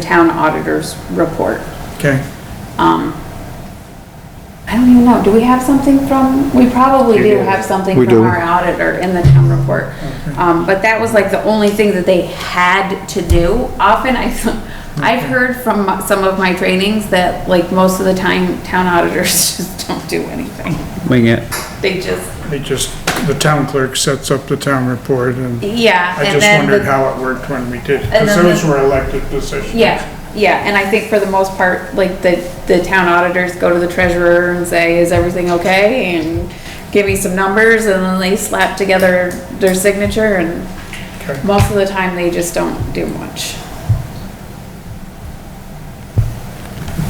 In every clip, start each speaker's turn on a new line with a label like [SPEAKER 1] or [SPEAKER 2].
[SPEAKER 1] town auditor's report.
[SPEAKER 2] Okay.
[SPEAKER 1] I don't even know, do we have something from, we probably do have something
[SPEAKER 3] We
[SPEAKER 1] from
[SPEAKER 3] do.
[SPEAKER 1] our auditor in the town report. Um, but that was like the only thing that they had to do. Often I, I've heard from some of my trainings that like most of the time, town auditors just don't do anything.
[SPEAKER 3] wing it.
[SPEAKER 1] They just,
[SPEAKER 2] It just, the town clerk sets up the town report and
[SPEAKER 1] yeah.
[SPEAKER 2] I
[SPEAKER 1] and
[SPEAKER 2] just
[SPEAKER 1] then the-
[SPEAKER 2] wondered how it worked when we did,
[SPEAKER 1] And
[SPEAKER 2] because
[SPEAKER 1] then
[SPEAKER 2] those
[SPEAKER 1] the-
[SPEAKER 2] were elected positions.
[SPEAKER 1] Yeah, yeah, and I think for the most part, like, the, the town auditors go to the treasurer and say, is everything okay? And give me some numbers, and then they slap together their signature, and
[SPEAKER 2] Okay.
[SPEAKER 1] most of the time, they just don't do much.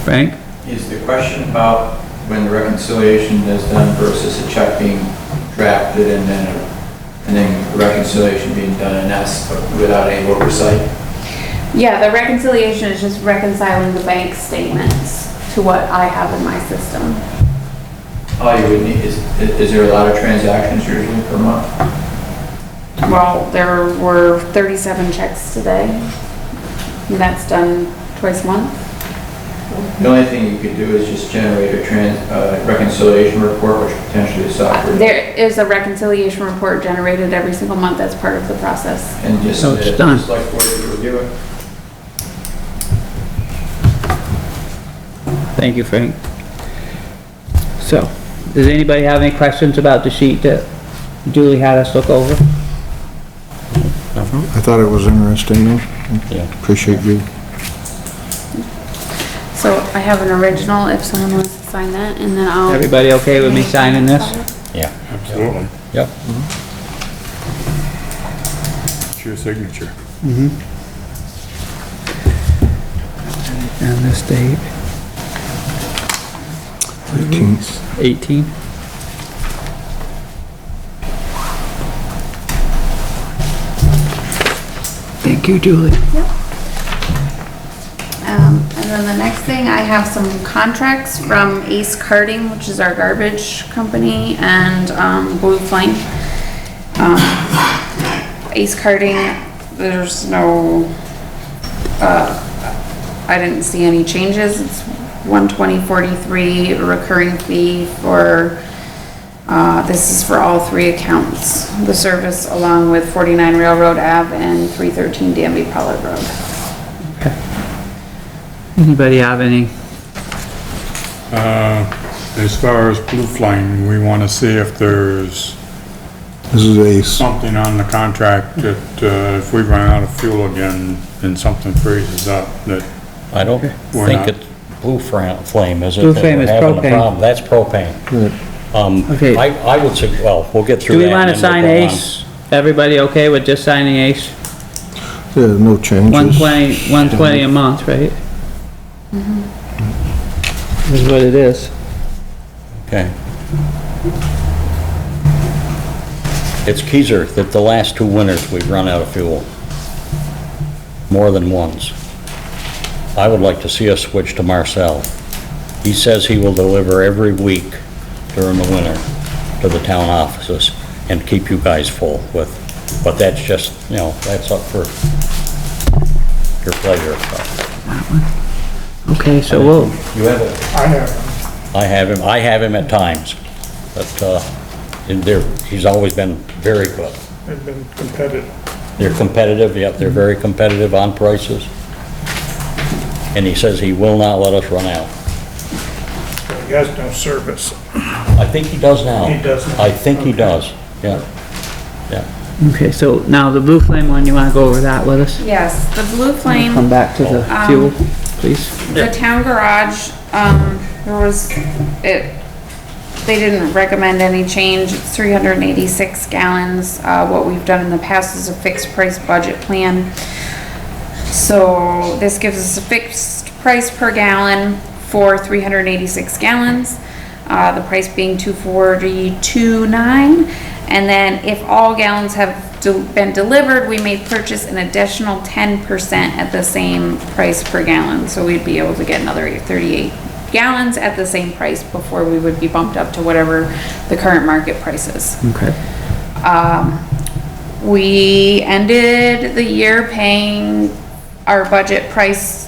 [SPEAKER 3] Frank?
[SPEAKER 4] Is the question about when the reconciliation is done versus a check being drafted and then, and then reconciliation being done, and that's without any oversight?
[SPEAKER 1] Yeah, the reconciliation is just reconciling the bank statements to what I have in my system.
[SPEAKER 4] All you would need, is, is there a lot of transactions usually per month?
[SPEAKER 1] Well, there were thirty-seven checks today, and that's done twice a month.
[SPEAKER 4] The only thing you could do is just generate a trans, uh, reconciliation report, which potentially is software,
[SPEAKER 1] There is a reconciliation report generated every single month as part of the process.
[SPEAKER 4] and just,
[SPEAKER 3] So
[SPEAKER 4] uh,
[SPEAKER 3] it's done.
[SPEAKER 4] just like board to review it.
[SPEAKER 3] Thank you, Frank. So, does anybody have any questions about the sheet that Julie had us look over?
[SPEAKER 5] I thought it was interesting, though. Appreciate you.
[SPEAKER 1] So I have an original if someone wants to sign that and then I'll.
[SPEAKER 3] Everybody okay with me signing this?
[SPEAKER 6] Yeah. Absolutely. Yep.
[SPEAKER 7] It's your signature.
[SPEAKER 3] And this date,
[SPEAKER 5] 18th.
[SPEAKER 3] 18? Thank you, Julie.
[SPEAKER 1] Um, and then the next thing, I have some contracts from Ace Carting, which is our garbage company, and, um, Blue Flame. Um, Ace Carting, there's no, uh, I didn't see any changes. It's one twenty forty-three recurring fee for, uh, this is for all three accounts. The service along with forty-nine Railroad Ave and three thirteen Danby Pollard Road.
[SPEAKER 3] Anybody have any?
[SPEAKER 7] Uh, As far as blue flying, we want to see if there's
[SPEAKER 5] This is Ace.
[SPEAKER 7] something on the contract that uh, if we run out of fuel again and something freezes up, that,
[SPEAKER 6] I don't
[SPEAKER 7] We're
[SPEAKER 6] think
[SPEAKER 7] not.
[SPEAKER 6] it's blue fra- flame, is it?
[SPEAKER 3] Blue
[SPEAKER 6] that
[SPEAKER 3] flame
[SPEAKER 6] we're
[SPEAKER 3] is
[SPEAKER 6] having the
[SPEAKER 3] propane.
[SPEAKER 6] problem? That's propane. Um,
[SPEAKER 3] Okay.
[SPEAKER 6] I, I would say, well, we'll get through
[SPEAKER 3] Do
[SPEAKER 6] that.
[SPEAKER 3] we
[SPEAKER 6] and
[SPEAKER 3] wanna
[SPEAKER 6] then
[SPEAKER 3] sign
[SPEAKER 6] we'll go on.
[SPEAKER 3] Ace? Everybody okay with just signing Ace?
[SPEAKER 5] Yeah, no changes.
[SPEAKER 3] 120, 120 a month, right? Mm-hmm. Is what it is.
[SPEAKER 6] Okay. It's Keyser that the last two winters we've run out of fuel. More than once. I would like to see us switch to Marcel. He says he will deliver every week during the winter to the town offices and keep you guys full with, but that's just, you know, that's up for your pleasure.
[SPEAKER 3] Okay, so we'll,
[SPEAKER 6] You have it?
[SPEAKER 2] I have,
[SPEAKER 6] I have him, I have him at times, but, uh, and they're, he's always been very good.
[SPEAKER 2] I've been competitive.
[SPEAKER 6] They're competitive, yep, they're very competitive on prices. And he says he will not let us run out.
[SPEAKER 2] He has no service.
[SPEAKER 6] I think he does now.
[SPEAKER 2] He does now.
[SPEAKER 6] I think he does, yeah, yeah.
[SPEAKER 3] okay, so now the blue flame one, you wanna go over that with us?
[SPEAKER 1] Yes, the Blue
[SPEAKER 3] Come
[SPEAKER 1] Flame,
[SPEAKER 3] back to the
[SPEAKER 1] Um,
[SPEAKER 3] fuel, please.
[SPEAKER 1] the town garage, um, there was, it, they didn't recommend any change. It's three hundred and eighty-six gallons. Uh, what we've done in the past is a fixed price budget plan. So this gives us a fixed price per gallon for three hundred and eighty-six gallons. Uh, the price being two forty-two nine. And then if all gallons have de- been delivered, we may purchase an additional ten percent at the same price per gallon. So we'd be able to get another thirty-eight gallons at the same price before we would be bumped up to whatever the current market price is.
[SPEAKER 3] Okay,
[SPEAKER 1] Um, We ended the year paying our budget price